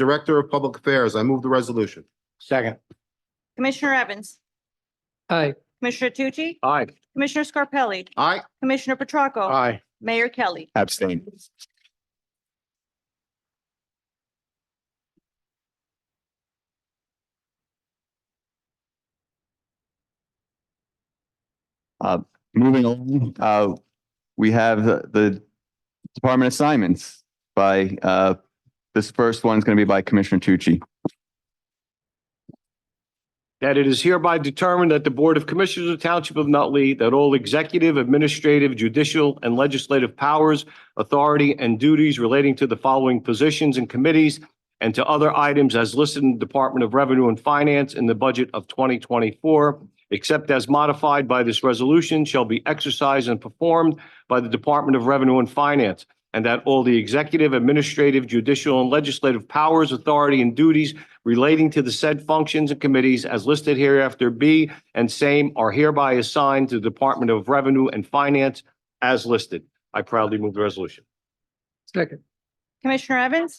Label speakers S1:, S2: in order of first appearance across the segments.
S1: Director of Public Affairs, I move the resolution.
S2: Second.
S3: Commissioner Evans,
S2: Aye.
S3: Commissioner Tucci,
S2: Aye.
S3: Commissioner Scarpelli,
S1: Aye.
S3: Commissioner Petracca,
S2: Aye.
S3: Mayor Kelly.
S4: abstain, Uh, moving on, uh, we have the- the department assignments by, uh, this first one is going to be by Commissioner Tucci.
S2: That it is hereby determined that the Board of Commissioners of the Township of Nutley, that all executive, administrative, judicial, and legislative powers, authority, and duties relating to the following positions and committees and to other items as listed in the Department of Revenue and Finance in the budget of 2024, except as modified by this resolution, shall be exercised and performed by the Department of Revenue and Finance, and that all the executive, administrative, judicial, and legislative powers, authority, and duties relating to the said functions and committees as listed hereafter be and same are hereby assigned to the Department of Revenue and Finance as listed. I proudly move the resolution.
S5: Second.
S3: Commissioner Evans,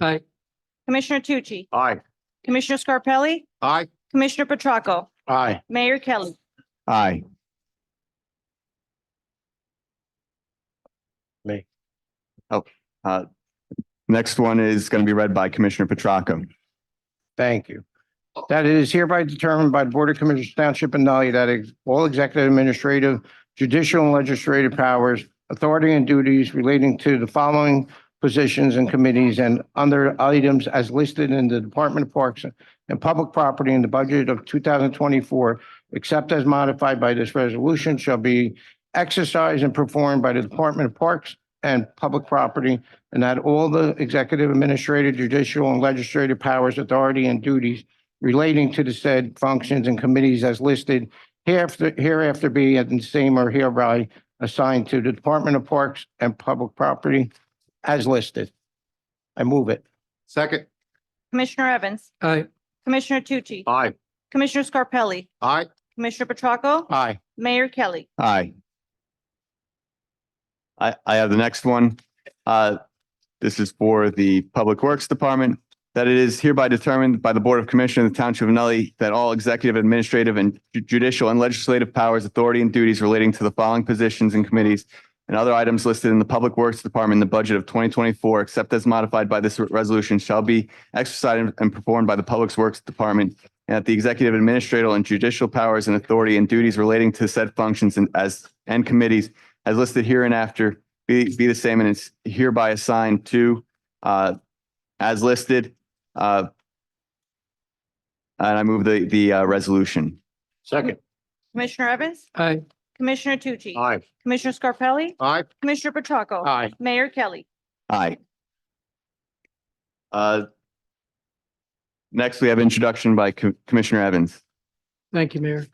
S5: Aye.
S3: Commissioner Tucci,
S2: Aye.
S3: Commissioner Scarpelli,
S1: Aye.
S3: Commissioner Petracca,
S2: Aye.
S3: Mayor Kelly.
S4: Aye.
S2: Me.
S4: Oh, uh, next one is going to be read by Commissioner Petracca.
S6: Thank you. That it is hereby determined by the Board of Commissioners Township of Nutley that ex- all executive, administrative, judicial, and legislative powers, authority, and duties relating to the following positions and committees and under items as listed in the Department of Parks and Public Property in the budget of two thousand twenty-four, except as modified by this resolution, shall be exercised and performed by the Department of Parks and Public Property and that all the executive, administrative, judicial, and legislative powers, authority, and duties relating to the said functions and committees as listed hereafter, hereafter be and same are hereby assigned to the Department of Parks and Public Property as listed. I move it.
S1: Second.
S3: Commissioner Evans,
S5: Aye.
S3: Commissioner Tucci,
S2: Aye.
S3: Commissioner Scarpelli,
S1: Aye.
S3: Commissioner Petracca,
S6: Aye.
S3: Mayor Kelly.
S4: Aye. I, I have the next one. Uh, This is for the Public Works Department. That it is hereby determined by the Board of Commissioners of the Township of Nutley that all executive, administrative, and ju- judicial and legislative powers, authority, and duties relating to the following positions and committees and other items listed in the Public Works Department in the budget of 2024, except as modified by this resolution, shall be exercised and performed by the Public Works Department and that the executive, administrative, and judicial powers and authority and duties relating to said functions and as, and committees as listed here and after be, be the same and it's hereby assigned to, uh, as listed, uh, and I move the, the, uh, resolution.
S2: Second.
S3: Commissioner Evans,
S5: Aye.
S3: Commissioner Tucci,
S2: Aye.
S3: Commissioner Scarpelli,
S1: Aye.
S3: Commissioner Petracca,
S6: Aye.
S3: Mayor Kelly.
S4: Aye. Uh, next we have introduction by Co- Commissioner Evans.
S5: Thank you, Mayor.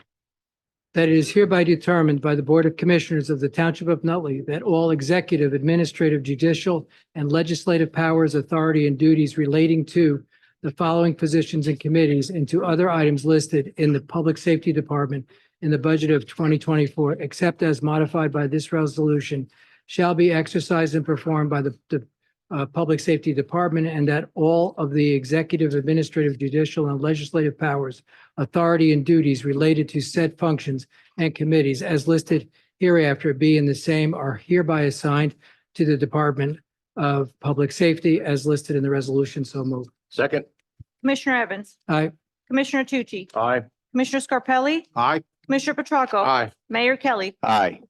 S5: That it is hereby determined by the Board of Commissioners of the Township of Nutley that all executive, administrative, judicial, and legislative powers, authority, and duties relating to the following positions and committees and to other items listed in the Public Safety Department in the budget of 2024, except as modified by this resolution, shall be exercised and performed by the, the uh, Public Safety Department, and that all of the executive, administrative, judicial, and legislative powers, authority and duties related to said functions and committees as listed hereafter be and the same are hereby assigned to the Department of Public Safety as listed in the resolution. So moved.
S2: Second.
S3: Commissioner Evans,
S5: Aye.
S3: Commissioner Tucci,
S2: Aye.
S3: Commissioner Scarpelli,
S1: Aye.
S3: Commissioner Petracca,
S2: Aye.
S3: Mayor Kelly.
S4: Aye.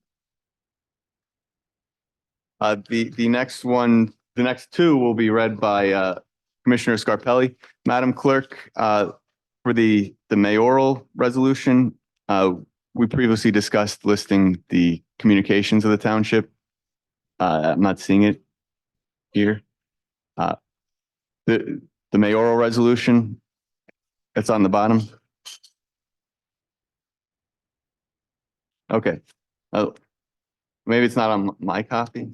S4: Uh, the, the next one, the next two will be read by, uh, Commissioner Scarpelli. Madam Clerk, uh, for the, the mayoral resolution, uh, we previously discussed listing the communications of the township. Uh, I'm not seeing it here. Uh, the, the mayoral resolution, it's on the bottom. Okay. Oh, maybe it's not on my copy.